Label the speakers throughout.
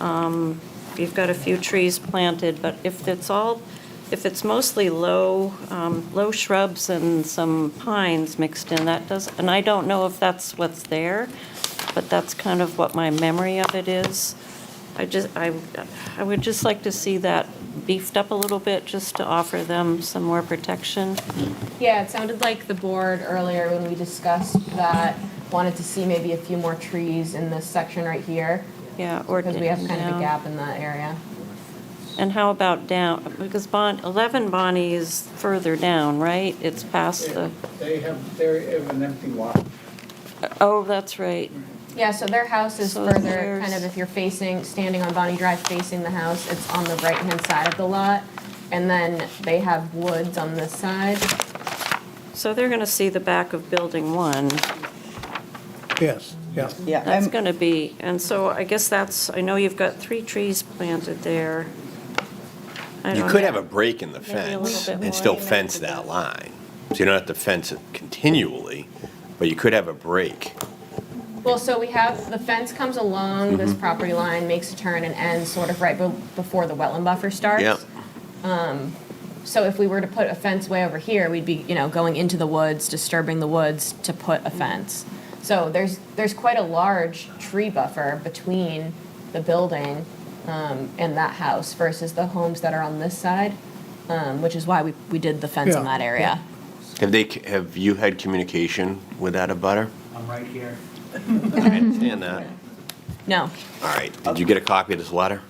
Speaker 1: Um, You've got a few trees planted, but if it's all, if it's mostly low, um, low shrubs and some pines mixed in, that does, and I don't know if that's what's there, but that's kind of what my memory of it is. I just, I, I would just like to see that beefed up a little bit, just to offer them some more protection.
Speaker 2: Yeah, it sounded like the board earlier when we discussed that wanted to see maybe a few more trees in this section right here.
Speaker 1: Yeah, or
Speaker 2: Because we have kind of a
Speaker 1: down.
Speaker 2: gap in that area.
Speaker 1: And how about down, because Bon, 11 Bonnie is further down, right? It's past the,
Speaker 3: They have, they have an empty lot.
Speaker 1: oh, that's right.
Speaker 2: Yeah, so their house is
Speaker 1: So
Speaker 2: further,
Speaker 1: there's-
Speaker 2: kind of if you're facing, standing on Bonnie Drive facing the house, it's on the right-hand side of the lot. And then they have woods on this side.
Speaker 1: So they're going to see the back of Building 1.
Speaker 3: Yes, yeah.
Speaker 4: Yeah,
Speaker 1: That's
Speaker 4: I'm-
Speaker 1: going to be, and so I guess that's, I know you've got three trees planted there. I
Speaker 5: You
Speaker 1: don't
Speaker 5: could
Speaker 1: know.
Speaker 5: have a break in the
Speaker 1: Maybe a
Speaker 5: fence
Speaker 1: little bit
Speaker 5: and
Speaker 1: more.
Speaker 5: still fence that line. So you don't have to fence it continually, but you could have a break.
Speaker 2: Well, so we have, the fence comes along this property line, makes a turn and ends sort of right be- before the wetland buffer starts.
Speaker 5: Yep.
Speaker 2: So if we were to put a fence way over here, we'd be, you know, going into the woods, disturbing the woods to put a fence. So there's, there's quite a large tree buffer between the building um, and that house versus the homes that are on this side, um, which is why we, we did the fence in
Speaker 3: Yeah.
Speaker 2: that area.
Speaker 5: Have they, have you had communication with that abutter?
Speaker 3: I'm right here.
Speaker 5: I understand that.
Speaker 2: No,
Speaker 5: All right, did you get a copy of this letter?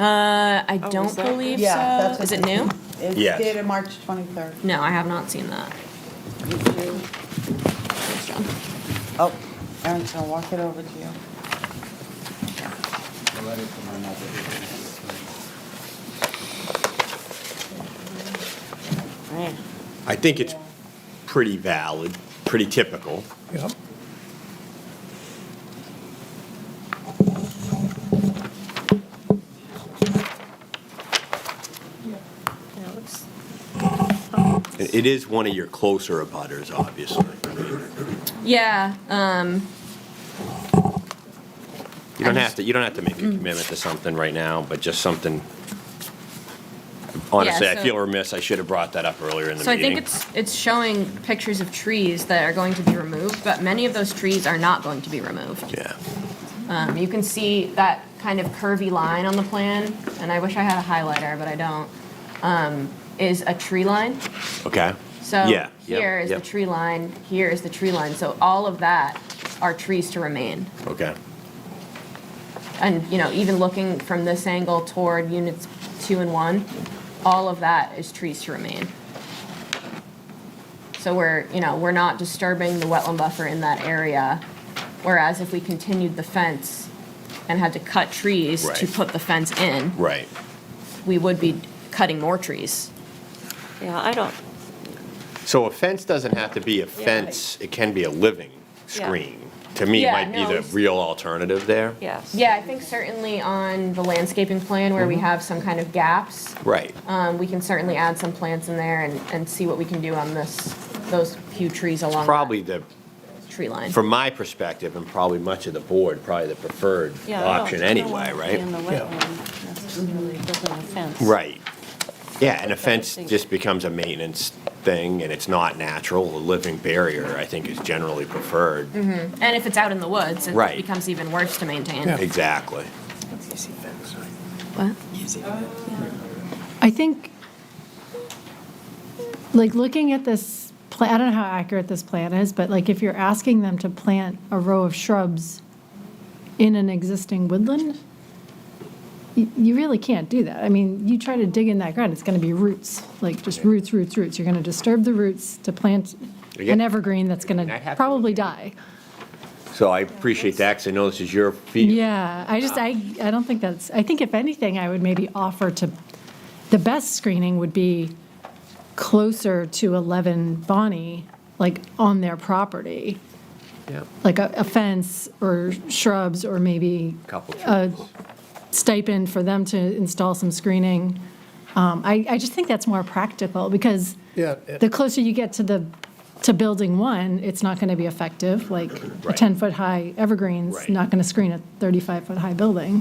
Speaker 2: I- I
Speaker 1: Oh,
Speaker 2: don't
Speaker 1: is that-
Speaker 2: believe
Speaker 4: Yeah,
Speaker 2: so.
Speaker 4: that's
Speaker 2: Is
Speaker 4: what-
Speaker 2: it new?
Speaker 4: It's
Speaker 5: Yes.
Speaker 4: dated March 23rd.
Speaker 2: No, I have not seen that.
Speaker 4: You do-
Speaker 2: Thanks, John.
Speaker 4: Oh, Aaron's gonna walk it over to you.
Speaker 3: The letter from my mother.
Speaker 1: Right.
Speaker 5: I think it's pretty valid, pretty typical.
Speaker 3: Yep.
Speaker 1: Yeah, it looks-
Speaker 5: It it is one of your closer abutters, obviously. I mean,
Speaker 2: Yeah, um,
Speaker 5: You don't have to, you don't have to make a
Speaker 2: Mm.
Speaker 5: commitment to something right now, but just something. Honestly, I
Speaker 2: so-
Speaker 5: feel remiss, I should have brought that up earlier in the meeting.
Speaker 2: So I think it's, it's showing pictures of trees that are going to be removed, but many of those trees are not going to be removed.
Speaker 5: Yeah.
Speaker 2: Um, You can see that kind of curvy line on the plan, and I wish I had a highlighter, but I don't, um, is a tree line.
Speaker 5: Okay.
Speaker 2: So
Speaker 5: Yeah, yep,
Speaker 2: here is the
Speaker 5: yep.
Speaker 2: tree line, here is the tree line. So all of that are trees to remain.
Speaker 5: Okay.
Speaker 2: And, you know, even looking from this angle toward units two and one, all of that is trees to remain. So we're, you know, we're not disturbing the wetland buffer in that area, whereas if we continued the fence and had to cut trees to
Speaker 5: Right.
Speaker 2: put the fence in,
Speaker 5: Right.
Speaker 2: we would be cutting more trees.
Speaker 1: Yeah, I don't,
Speaker 5: So a fence doesn't have to be a fence, it can be a living screen. To me, it
Speaker 2: Yeah,
Speaker 5: might be
Speaker 2: no,
Speaker 5: the
Speaker 2: it's-
Speaker 5: real alternative there.
Speaker 1: yes.
Speaker 2: Yeah, I think certainly on the landscaping plan where we
Speaker 5: Mm-hmm.
Speaker 2: have some kind of gaps,
Speaker 5: Right.
Speaker 2: um, we can certainly add some plants in there and, and see what we can do on this, those few trees along that
Speaker 5: Probably the,
Speaker 2: tree line.
Speaker 5: from my perspective, and probably much of the board, probably the preferred
Speaker 1: Yeah, I don't-
Speaker 5: option
Speaker 1: I don't
Speaker 5: anyway,
Speaker 1: want to be In the
Speaker 5: right?
Speaker 1: wetland, necessarily building a fence.
Speaker 5: Right. Yeah, and a fence
Speaker 1: think-
Speaker 5: just becomes a maintenance thing, and it's not natural. A living barrier, I think, is generally preferred.
Speaker 2: And if it's out in the woods, it
Speaker 5: Right.
Speaker 2: becomes even worse to maintain.
Speaker 5: Exactly.
Speaker 2: What?
Speaker 6: I think, like, looking at this, pla- I don't know how accurate this plan is, but like, if you're asking them to plant a row of shrubs in an existing woodland, y- you really can't do that. I mean, you try to dig in that ground, it's going to be roots, like, just roots, roots, roots. You're going to disturb the roots to plant an
Speaker 5: Again-
Speaker 6: evergreen that's going
Speaker 5: I
Speaker 6: to
Speaker 5: have to-
Speaker 6: probably die.
Speaker 5: So I appreciate that, because I know this is your field.
Speaker 6: Yeah, I just, I, I don't think that's, I think if anything, I would maybe offer to, the best screening would be closer to 11 Bonnie, like on their property,
Speaker 5: Yeah.
Speaker 6: like a a fence or shrubs or maybe
Speaker 5: Couple
Speaker 6: a stipend for them to install some screening. Um, I, I just think that's more practical because
Speaker 3: Yeah, it-
Speaker 6: the closer you get to the, to building one, it's not going to be effective, like a
Speaker 5: Right.
Speaker 6: 10-foot high evergreen's
Speaker 5: Right.
Speaker 6: not going to screen a 35-foot high building.